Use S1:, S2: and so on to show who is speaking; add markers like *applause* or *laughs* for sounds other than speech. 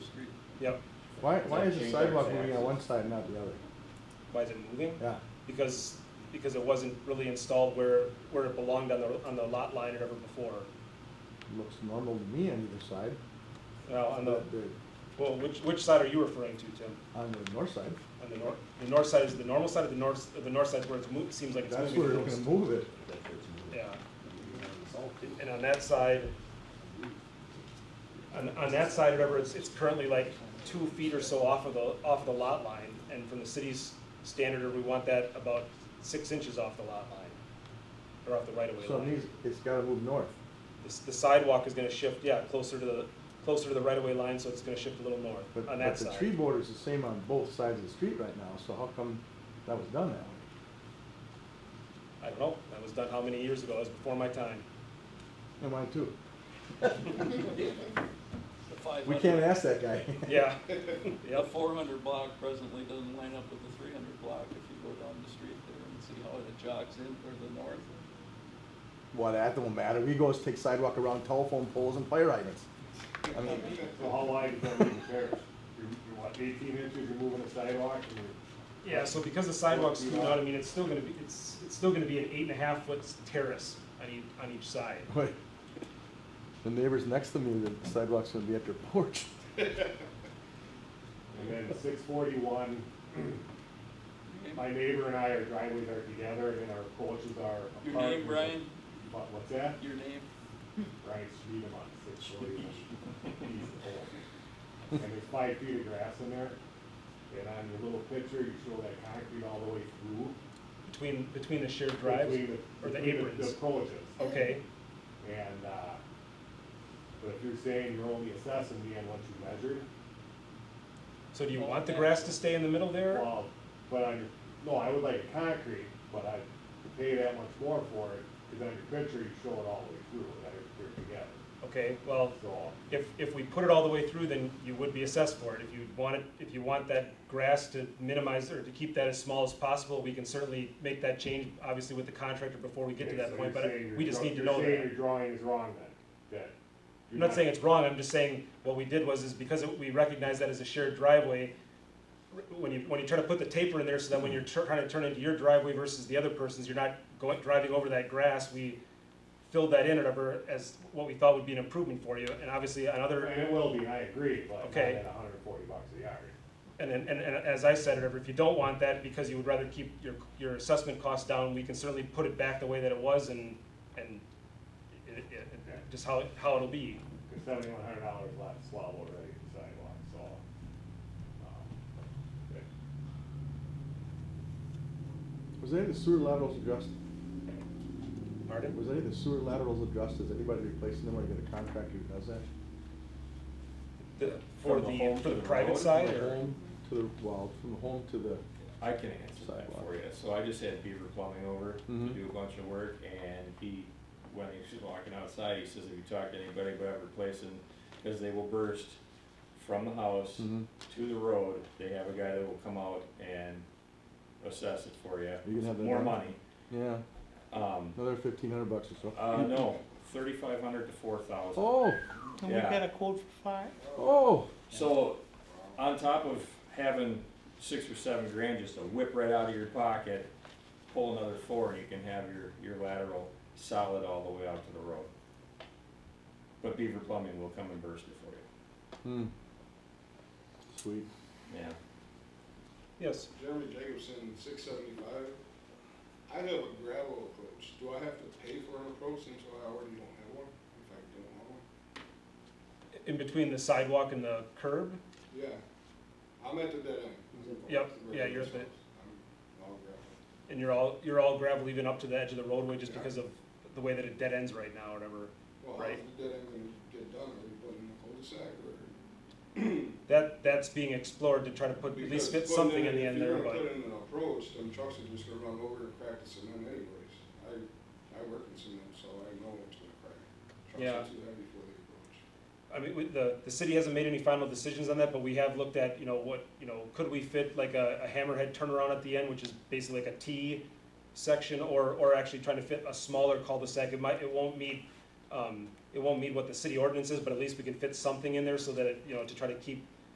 S1: Yep.
S2: Why, why is the
S3: Change our
S2: sidewalk moving
S3: axis.
S2: on one side, and not the other?
S1: Why is it moving?
S2: Yeah,
S1: Because, because it wasn't really installed where, where it belonged on the, on the lot line or ever before.
S2: looks normal to me on either side.
S1: Now, on the,
S2: The-
S1: well, which, which side are you referring to, Tim?
S2: On the north side,
S1: On the north, the north side is the normal side, or the north, the north side's where it's moved, seems like it's
S2: that's
S1: moving.
S2: where
S1: the
S2: they're gonna
S1: most.
S2: move it.
S1: Yeah, and on that side, on, on that side, remember, it's, it's currently like two feet or so off of the, off of the lot line, and from the city's standard, we want that about six inches off the lot line, or off the right-of-way
S2: So it
S1: line.
S2: needs, it's gotta move north.
S1: The s- The sidewalk is gonna shift, yeah, closer to the, closer to the right-of-way line, so it's gonna shift a little
S2: But,
S1: north on
S2: but
S1: that
S2: the tree
S1: side.
S2: border's the same on both sides of the street right now, so how come that was done that way?
S1: I don't know, that was done how many years ago, that was before my time.
S2: And mine
S1: *laughs*
S2: too.
S4: The five
S2: We
S4: hundred-
S2: can't ask that guy. *laughs*
S1: Yeah,
S4: The
S1: yep,
S4: four hundred block presently doesn't line up with the three hundred block if you go down the street there and see how it jogs in or the north.
S2: Well, that don't matter, we go take sidewalk around telephone poles and fire hydrants. I mean,
S5: So how wide is that main terrace? You're, you're what, eighteen inches, you're moving a sidewalk, and you're,
S1: yeah, so because the sidewalk's through out, I mean, it's still gonna be, it's, it's still gonna be an eight and a half foot terrace on each, on each side.
S2: wait. The neighbors next to me, the sidewalk's gonna be at their porch.
S5: and then six forty-one,
S4: Your
S5: my
S4: name-
S5: neighbor and I, our driveways are together, and then our approaches are apart.
S4: Your name, Brian?
S5: What, what's that?
S4: Your name?
S5: Brian Streetum on six forty-one. He's old. And there's five feet of grass in there, and on your little picture, you show that concrete all the way through.
S1: Between, between the shared drives
S5: between
S1: or the
S5: between The
S1: aprons?
S5: approaches.
S4: Oh,
S1: Okay,
S5: And, uh, but if you're saying you're only assessing me on what you measured,
S1: so do you want the grass to stay in the middle there?
S5: well, but on your, no, I would like it concrete, but I'd pay that much more for it, cause on your picture, you show it all the way through, that it's put together.
S1: Okay, well,
S5: So,
S1: if, if we put it all the way through, then you would be assessed for it. If you want it, if you want that grass to minimize or to keep that as small as possible, we can certainly make that change, obviously with the contractor before we get to
S5: okay, so
S1: that point,
S5: you're
S1: but
S5: saying your
S1: we just
S5: draw-
S1: need to know
S5: You're saying your
S1: that.
S5: drawing is wrong then, that.
S1: I'm
S5: you're
S1: not saying it's wrong, I'm just saying what we did was, is because it- we recognize that as a shared driveway, r- when you, when you try to put the taper in there, so that when you're tur- trying to turn into your driveway versus the other person's, you're not going, driving over that grass, we filled that in or whatever as what we thought would be an improvement for you, and obviously on other
S5: And it will be, I agree, but not
S1: Okay.
S5: at hundred and forty bucks a yard.
S1: And, and, and and as I said, if you don't want that, because you would rather keep your, your assessment costs down, we can certainly put it back the way that it was and, and it, it, it- just how, how it'll be.
S5: Cause seventy-one hundred dollars left swallow already in sidewalk, so. um, it-
S2: Was any of the sewer laterals addressed?
S1: Pardon?
S2: Was any of the sewer laterals addressed? Is anybody replacing them or get a contractor who does that?
S1: The- For
S3: From the
S1: the,
S3: home
S1: for
S3: to
S1: the
S3: the
S1: private
S3: road,
S1: side
S2: From the
S1: or?
S2: home To the, well, from the home to the,
S3: I can answer that
S2: Sidewalk.
S3: for you. So I just had Beaver Plumbing over to
S2: Mhm.
S3: do a bunch of work and he, when he was walking outside, he says if you talk to anybody about replacing, because they will burst from the house
S2: Mhm.
S3: to the road, they have a guy that will come out and assess it for you.
S2: You can have that
S3: More
S2: done?
S3: money.
S2: yeah,
S3: Um,
S2: another fifteen hundred bucks or so.
S3: uh, no, thirty-five hundred to four thousand.
S2: Oh,
S6: And we
S3: Yeah.
S6: got a quote for five?
S2: oh,
S3: So, on top of having six or seven grand just to whip right out of your pocket, pull another four, and you can have your, your lateral solid all the way out to the road. But Beaver Plumbing will come and burst it for you,
S2: hmm. Sweet.
S3: yeah.
S1: Yes.
S7: Jeremy Jacobson, six seventy-five. I have a gravel approach. Do I have to pay for an approach since I already don't have one? If I don't have one?
S1: In between the sidewalk and the curb?
S7: Yeah. I'm at the dead end.
S1: Yep, yeah, you're at the-
S7: I'm all gravel.
S1: And you're all, you're all gravel even up to the edge of the roadway just because of the way that it dead ends right now or whatever.
S7: Well,
S1: Right.
S7: how's the dead end gonna get done? Are you putting in a cul-de-sac or?
S1: That, that's being explored to try to put, at
S7: Because
S1: least fit
S7: putting
S1: something in the
S7: if
S1: end
S7: you're
S1: there,
S7: gonna
S1: but.
S7: Put in an approach, then trucks are just gonna run over and crack the cement anyways. I, I work in cement, so I know it's gonna crack.
S1: Yeah.
S7: Trucks are too heavy for the approach.
S1: I mean, we- the, the city hasn't made any final decisions on that, but we have looked at, you know, what, you know, could we fit like a, a hammerhead turnaround at the end, which is basically like a T section, or, or actually trying to fit a smaller cul-de-sac, it might, it won't meet, um, it won't meet what the city ordinance is, but at least we can fit something in there so that, it you know, to try to keep